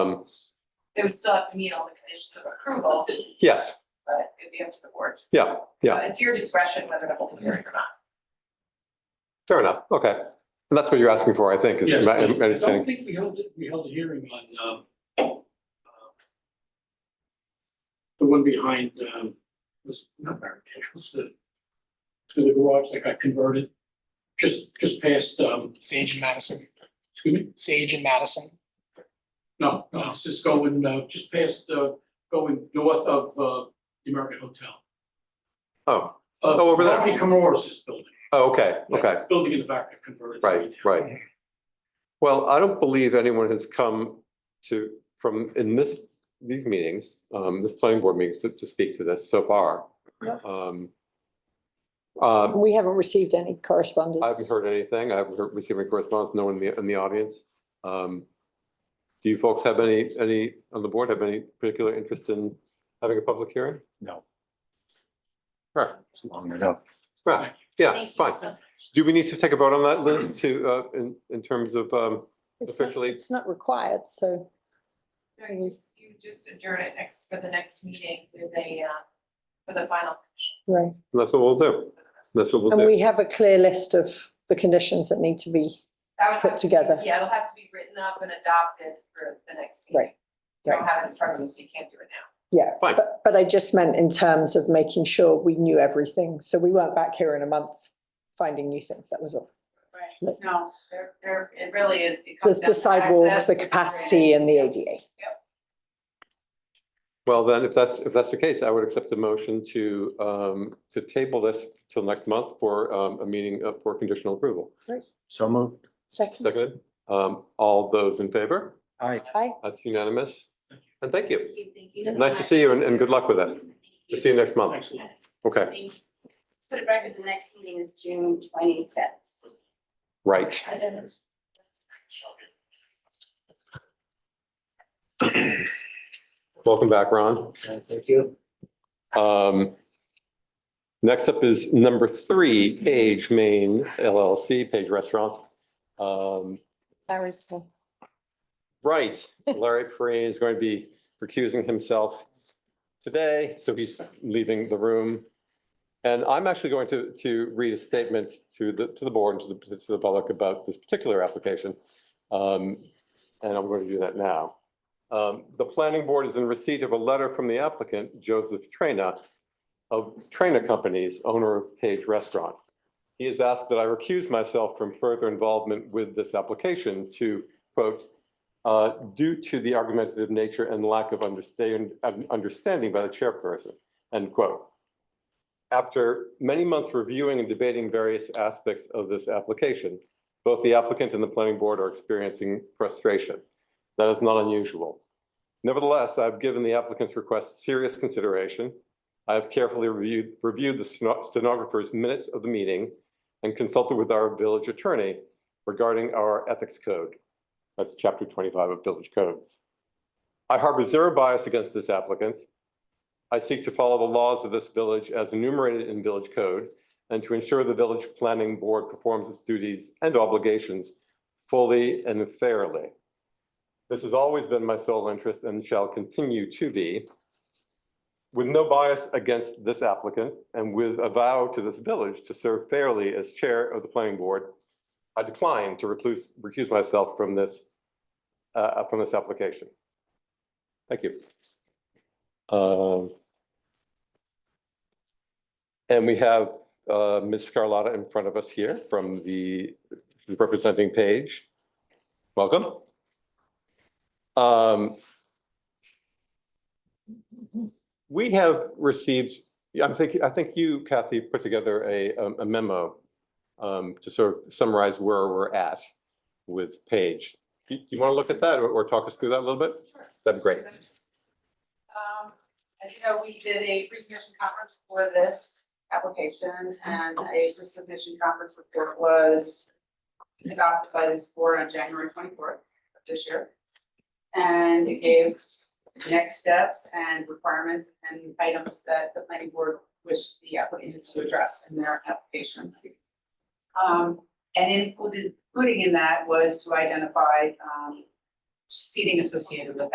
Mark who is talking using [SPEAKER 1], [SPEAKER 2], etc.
[SPEAKER 1] Um,
[SPEAKER 2] They would still have to meet all the conditions of approval,
[SPEAKER 1] yes,
[SPEAKER 2] but it'd be up to the board.
[SPEAKER 1] yeah, yeah.
[SPEAKER 2] So It's your discretion whether to hold a hearing or not.
[SPEAKER 1] fair enough, okay. And that's what you're asking for, I think, is
[SPEAKER 3] Yes,
[SPEAKER 1] my
[SPEAKER 3] but I don't
[SPEAKER 1] understanding.
[SPEAKER 3] think we held it, we held a hearing on, um, um, the one behind, um, was not Marrakesh, was the, to the garage that got converted, just, just past, um,
[SPEAKER 4] Sage and Madison,
[SPEAKER 3] excuse me,
[SPEAKER 4] Sage and Madison.
[SPEAKER 3] no, no, this is going, uh, just past, uh, going north of, uh, the American Hotel.
[SPEAKER 1] Oh,
[SPEAKER 3] Uh,
[SPEAKER 1] Oh, over there.
[SPEAKER 3] Marty Camoros's building.
[SPEAKER 1] oh, okay, okay,
[SPEAKER 3] Building in the back that converted. to
[SPEAKER 1] right,
[SPEAKER 3] retail.
[SPEAKER 1] right. Well, I don't believe anyone has come to, from, in this, these meetings, um, this planning board meetings to, to speak to this so far.
[SPEAKER 2] Yeah.
[SPEAKER 1] Um, um,
[SPEAKER 5] We haven't received any
[SPEAKER 1] I haven't
[SPEAKER 5] correspondence.
[SPEAKER 1] heard anything. I haven't heard- received any correspondence, no one in the, in the audience. Um, Do you folks have any, any, on the board, have any particular interest in having a public hearing?
[SPEAKER 6] No.
[SPEAKER 1] Right,
[SPEAKER 6] It's long enough.
[SPEAKER 1] right, yeah, fine. Do we need to take a vote on that, Liz, to, uh, in, in terms of, um,
[SPEAKER 5] It's not-
[SPEAKER 1] officially-
[SPEAKER 5] It's not required, so
[SPEAKER 2] No, you just- you just adjourn it next, for the next meeting with a, uh, for the final. condition
[SPEAKER 5] right.
[SPEAKER 1] that's what we'll do.
[SPEAKER 2] for the rest.
[SPEAKER 1] That's what we'll
[SPEAKER 5] And
[SPEAKER 1] do.
[SPEAKER 5] we have a clear list of the conditions that need to be,
[SPEAKER 2] That would have
[SPEAKER 5] put
[SPEAKER 2] to be-
[SPEAKER 5] together.
[SPEAKER 2] Yeah, it'll have to be written up and adopted for the next meeting.
[SPEAKER 5] right,
[SPEAKER 2] You don't have it in front of you, so you can't do it now.
[SPEAKER 5] yeah.
[SPEAKER 1] Fine.
[SPEAKER 5] But, but I just meant in terms of making sure we knew everything, so we weren't back here in a month finding new things, that was all.
[SPEAKER 7] Right, no, there, there, it really is, it comes
[SPEAKER 5] The,
[SPEAKER 7] down
[SPEAKER 5] the
[SPEAKER 7] to
[SPEAKER 5] sidewalks,
[SPEAKER 7] access,
[SPEAKER 5] the
[SPEAKER 7] it's
[SPEAKER 5] capacity and the ADA.
[SPEAKER 1] Well, then, if that's, if that's the case, I would accept a motion to, um, to table this till next month for, um, a meeting of- for conditional approval.
[SPEAKER 6] So moved.
[SPEAKER 5] Second,
[SPEAKER 1] Seconded, um, all those in favor?
[SPEAKER 6] Aye.
[SPEAKER 5] aye,
[SPEAKER 1] That's unanimous.
[SPEAKER 3] Thank you.
[SPEAKER 1] And thank you.
[SPEAKER 7] Thank you, thank you so
[SPEAKER 1] Nice to
[SPEAKER 7] much.
[SPEAKER 1] see you and, and good luck with it. We'll see you next month.
[SPEAKER 3] Excellent.
[SPEAKER 1] Okay,
[SPEAKER 7] Thank you. For the record, the next meeting is June twenty-fifth.
[SPEAKER 1] right. Welcome back, Ron.
[SPEAKER 8] Thank you.
[SPEAKER 1] Um, next up is number three, Page Main LLC, Page Restaurants. Um,
[SPEAKER 5] Larry's.
[SPEAKER 1] right, Larry Perrine is going to be recusing himself today, so he's leaving the room. And I'm actually going to, to read a statement to the, to the board and to the, to the public about this particular application. Um, and I'm going to do that now. Um, the planning board is in receipt of a letter from the applicant, Joseph Traina, of Traina Companies, owner of Page Restaurant. He has asked that I recuse myself from further involvement with this application to, quote, uh, due to the argumentative nature and lack of understand, of understanding by the chairperson, end quote. After many months reviewing and debating various aspects of this application, both the applicant and the planning board are experiencing frustration. That is not unusual. Nevertheless, I've given the applicant's request serious consideration. I have carefully reviewed, reviewed the steno- stenographer's minutes of the meeting and consulted with our village attorney regarding our ethics code. That's chapter twenty-five of Village Code. I harbor zero bias against this applicant. I seek to follow the laws of this village as enumerated in Village Code and to ensure the Village Planning Board performs its duties and obligations fully and fairly. This has always been my sole interest and shall continue to be. With no bias against this applicant and with a vow to this village to serve fairly as Chair of the Planning Board, I decline to recluse, recuse myself from this, uh, from this application. Thank you. Um, And we have uh, Ms. Scarlotta in front of us here from the representing page. Welcome. Um, We have received, yeah, I'm thinking, I think you, Kathy, put together a a memo um, to sort of summarize where we're at with Page. Do do you want to look at that or- or talk us through that a little bit?
[SPEAKER 7] Sure.
[SPEAKER 1] That'd be great.
[SPEAKER 7] Um, as you know, we did a pre-submission conference for this application and a pre-submission conference report was adopted by this board on January twenty-fourth of this year. And it gave next steps and requirements and items that the planning board wished the applicant to address in their application. Um, and included, including in that was to identify, um, seating associated with